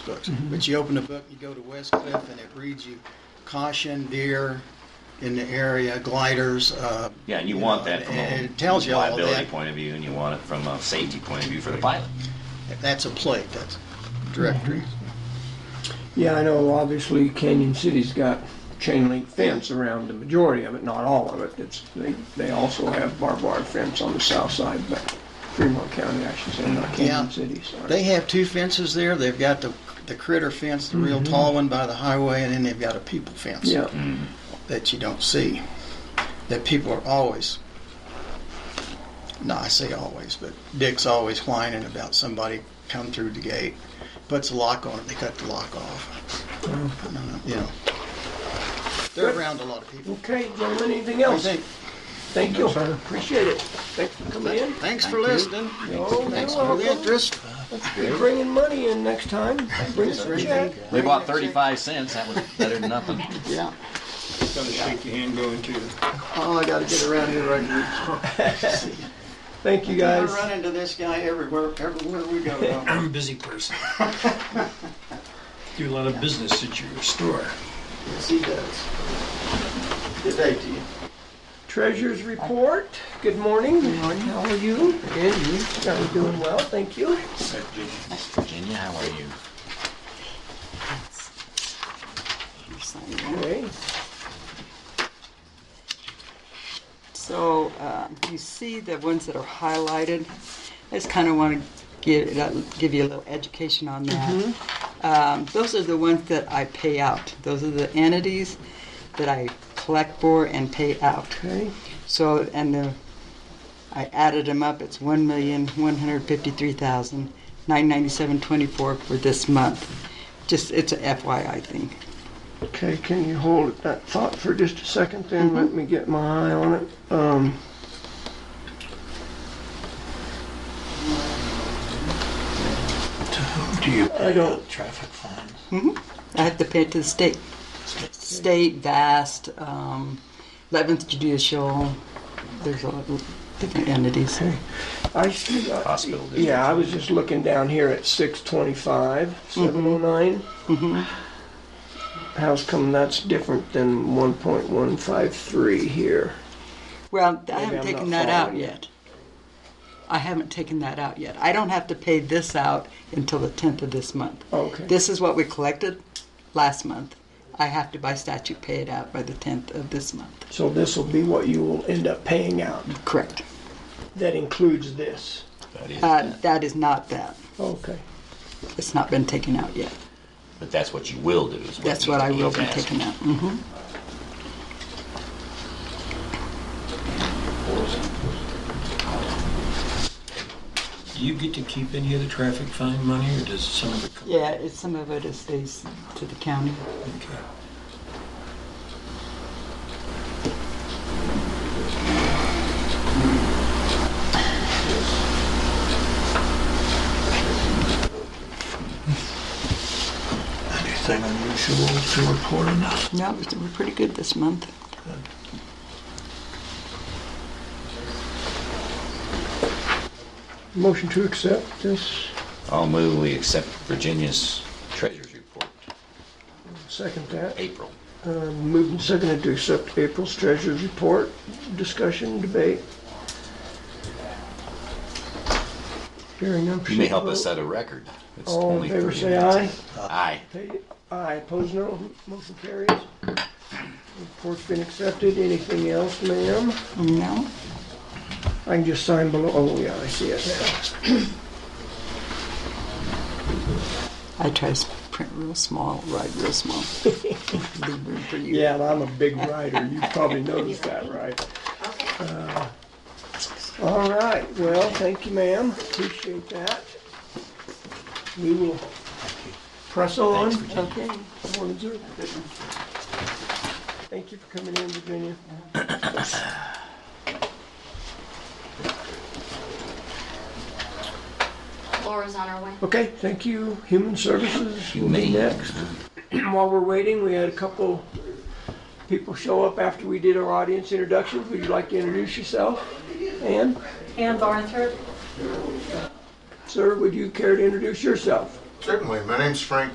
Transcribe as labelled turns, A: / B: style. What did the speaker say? A: books. But you open the book, you go to West Cliff, and it reads you caution deer in the area, gliders. Uh,
B: Yeah, and you want that from
A: and
B: a
A: it tells you all
B: liability
A: that.
B: point of view, and you want it from a safety point of view for the pilot.
A: That's a plate. That's directory.
C: Yeah, I know, obviously Canyon City's got chain link fence around the majority of it, not all of it. It's, they, they also have barbed wire fence on the south side, but Fremont County, I should say, not
A: Yeah.
C: Canyon City, sorry.
A: They have two fences there. They've got the the critter fence, the real tall one by the highway, and then they've got a people fence
C: Yeah,
A: that you don't see. That people are always. No, I say always, but Dick's always whining about somebody come through the gate, puts a lock on it, they cut the lock off. I don't know, You know, they're around a lot of people.
C: okay, gentlemen, anything
A: What do you
C: else?
A: think?
C: Thank you, appreciate it. Thanks for coming in.
A: Thanks for listening.
C: Oh,
A: Thanks
C: you're
A: for the
C: welcome.
A: interest.
C: Be bringing money in next time. Bring us a check.
B: They bought 35 cents. That was better than nothing.
A: Yeah.
D: Gotta shake your hand going to.
A: Oh, I gotta get around here right now.
C: Thank you,
A: I
C: guys.
A: run into this guy everywhere, everywhere we go. though.
D: I'm a busy person. Do a lot of business at your store.
A: Yes, he does. Good day to you.
C: Treasurer's report. Good morning. Good morning. How are you?
A: Good, you?
C: I'm doing well, thank you.
B: Miss Virginia, how are you?
C: Okay.
E: So uh, you see the ones that are highlighted. I just kind of want to give uh, give you a little education on that. Um, those are the ones that I pay out. Those are the entities that I collect for and pay out.
C: Okay.
E: So and the I added them up. It's one million one hundred fifty-three thousand nine ninety-seven twenty-four for this month. Just it's a FYI thing.
C: Okay, can you hold that thought for just a second then? Let me get my eye on it. Um,
D: Do you
C: I don't,
D: traffic fines?
E: Mm-hmm. I have to pay it to the state. State, vast, um, 11th judicial, there's a lot of different entities.
C: I see, uh,
B: Hospital. district.
C: yeah, I was just looking down here at six twenty-five, seven oh nine. How's come that's different than one point one five three here?
E: Well, I
C: Maybe I'm
E: haven't taken
C: not
E: that out
C: following you.
E: yet. I haven't taken that out yet. I don't have to pay this out until the 10th of this month.
C: Oh, Okay.
E: This is what we collected last month. I have to, by statute, pay it out by the 10th of this month.
C: So this will be what you will end up paying out.
E: Correct.
C: That includes this.
B: That is-
E: Uh, that is not that.
C: Okay.
E: It's not been taken out yet.
B: but that's what you will do. Is what
E: That's
B: he-
E: what I will
B: he's
E: be
B: asking.
E: taking out. Mhm.
D: Do you get to keep any of the traffic fine money or does some of it come?
E: Yeah, it's, some of it is stays to the county.
D: Okay. Anything unusual to report on that?
E: No, we're we're pretty good this month.
C: Motion to accept this.
B: I'll move we accept Virginia's treasurer's report,
C: Second that.
B: April.
C: Uh, Moved and seconded to accept April's treasurer's report. Discussion, debate. Hearing none.
B: You may help us set a record. It's
C: All
B: only
C: in favor,
B: 30
C: say
B: minutes.
C: aye.
B: Aye.
C: Pa- Aye, opposed, no. Motion carries. Report's been accepted. Anything else, ma'am?
E: No?
C: I can just sign below. Oh, yeah, I see it now.
E: I try to print real small, write real small. Leave room for you.
C: Yeah, and I'm a big writer. You probably noticed that, right? Uh, All right, well, thank you, ma'am. Appreciate that. We will press on.
E: Okay.
C: Morning, sir. Thank you for coming in, Virginia.
F: Laura's on her way.
C: Okay, thank you. Human Services will be
B: Humane.
C: next. While we're waiting, we had a couple people show up after we did our audience introductions. Would you like to introduce yourself? Ann?
G: Ann Barnthorpe,
C: Sir, would you care to introduce yourself?
H: Certainly. My name's Frank